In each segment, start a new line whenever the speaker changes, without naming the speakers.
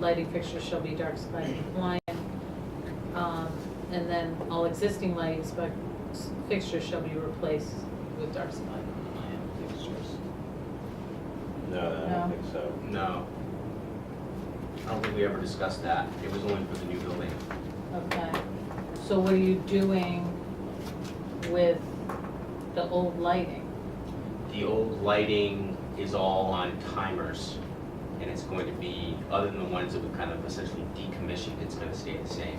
lighting fixtures shall be dark sky compliant. Um, and then all existing lighting spec, fixtures shall be replaced with dark sky compliant fixtures.
No, I don't
No.
think so.
No. I don't think we ever discussed that. It was only for the new building.
Okay, so what are you doing with the old lighting?
The old lighting is all on timers, and it's going to be, other than the ones that we've kind of essentially decommissioned, it's gonna stay the same.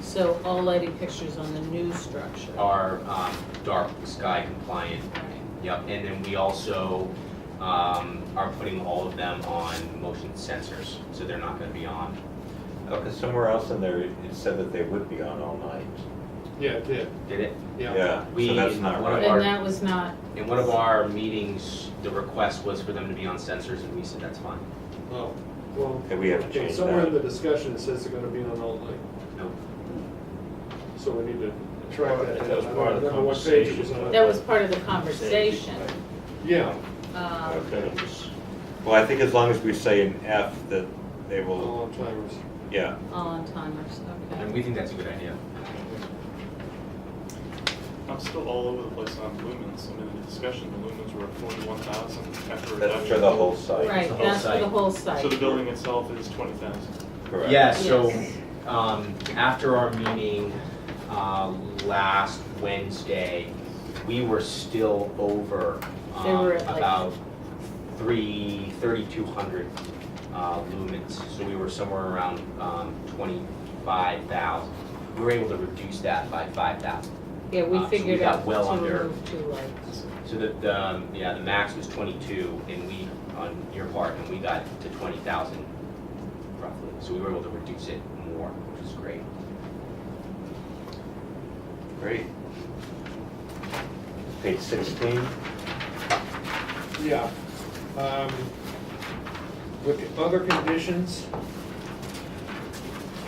So all lighting fixtures on the new structure?
Are um, dark sky compliant. Yep, and then we also um, are putting all of them on motion sensors, so they're not gonna be on.
Oh, 'cause somewhere else in there, it said that they would be on all night.
Yeah, it did,
Did it?
yeah.
Yeah,
We-
so that's not
one of
right.
And that was not,
In one of our meetings, the request was for them to be on sensors, and we said that's fine.
Oh, well,
Okay, we haven't
okay,
changed
somewhere in the
that.
discussion it says they're gonna be on all night,
No,
so we need to track that.
That was
down. I
part of the
don't remember what page it was
conversation.
on.
that was part of the conversation.
Yeah,
Um,
Okay. Well, I think as long as we say in F that they will,
all on timers.
yeah,
All on timers,
and
okay.
we think that's a good idea.
I'm still all over the place on lumens. I mean, in the discussion, the lumens were forty-one thousand after.
that's for
reduction.
the whole site.
Right,
the whole
that's for the
site.
whole
So the
site.
building itself is twenty thousand.
Correct.
Yeah, so,
Yes.
um, after our meeting, uh, last Wednesday, we were still over,
They
um,
were at like-
about three, thirty-two hundred, uh, lumens. So we were somewhere around, um, twenty-five thousand. We were able to reduce that by five thousand.
Yeah,
uh,
we
so we
figured
got
out
well
to
under-
remove two lights.
So the, the, um, yeah, the max was twenty-two and we, on your part, and we got to twenty thousand roughly. So we were able to reduce it more, which was great.
Great. Page sixteen,
Yeah. Um, With other conditions,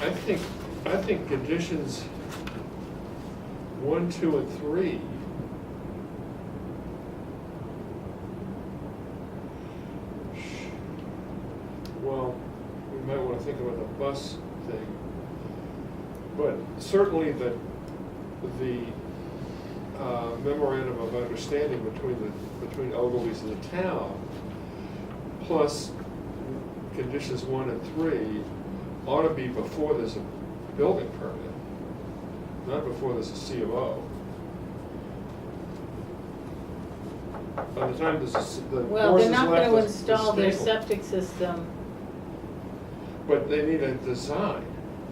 I think, I think conditions one, two, and three well, we might want to think about the bus thing. But certainly the, the uh, memorandum of understanding between the, between Ogilvy's and the town, plus conditions one and three, ought to be before there's a building permit, not before there's a COO. By the time this is, the
Well,
horse
they're
has
not
left
gonna
the- the
install their
stable.
septic system,
But they need a design.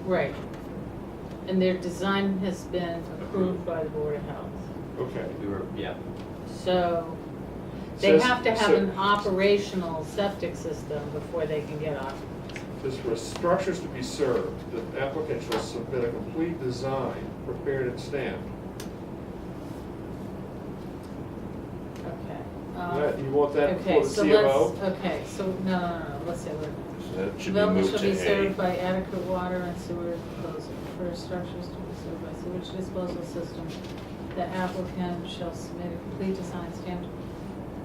right. And their design has been approved by the Board of Health.
Okay.
We were, yeah,
So they
Says-
have to have
so-
an operational septic system before they can get off.
Says for structures to be served, the applicant shall submit a complete design prepared and stamped.
Okay.
That-
um,
You want that
Okay,
before the
so
CMO?
let's, okay, so, no, no, no, let's say what. it
so
is.
that should be
Development
moved
shall be
to
served
A.
by adequate water and sewer disposal. For structures to be served by sewage disposal system, the applicant shall submit a complete design stamped.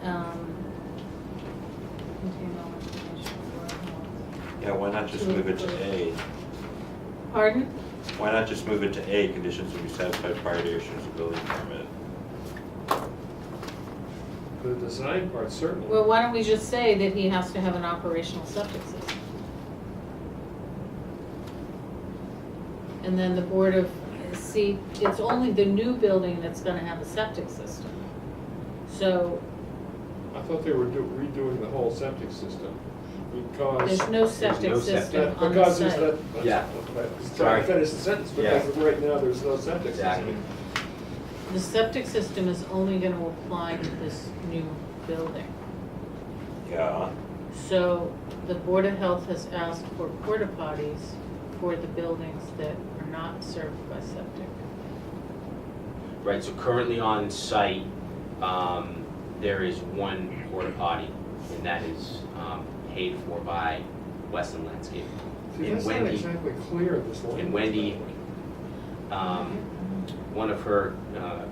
um, containing all information for-
Yeah, why not just move it to A?
Pardon?
Why not just move it to A, conditions will be satisfied prior to issuance of building permit?
The design part certainly.
Well, why don't we just say that he has to have an operational septic system? And then the board of, see, it's only the new building that's gonna have a septic system. So
I thought they were do- redoing the whole septic system because.
there's no
no
septic
septic.
system
that-
on the
Because it's
site.
that.
Yeah.
Sorry,
Sorry.
I finished the sentence,
Yeah.
because right now there's no septic
exactly.
system.
The septic system is only gonna apply to this new building.
Yeah,
So the Board of Health has asked for porta potties for the buildings that are not served by septic.
Right, so currently on site, um, there is one porta potty, and that is, um, paid for by Weston Landscape.
See,
And
that's not
Wendy-
exactly clear, this language.
And Wendy, um, one of her, uh,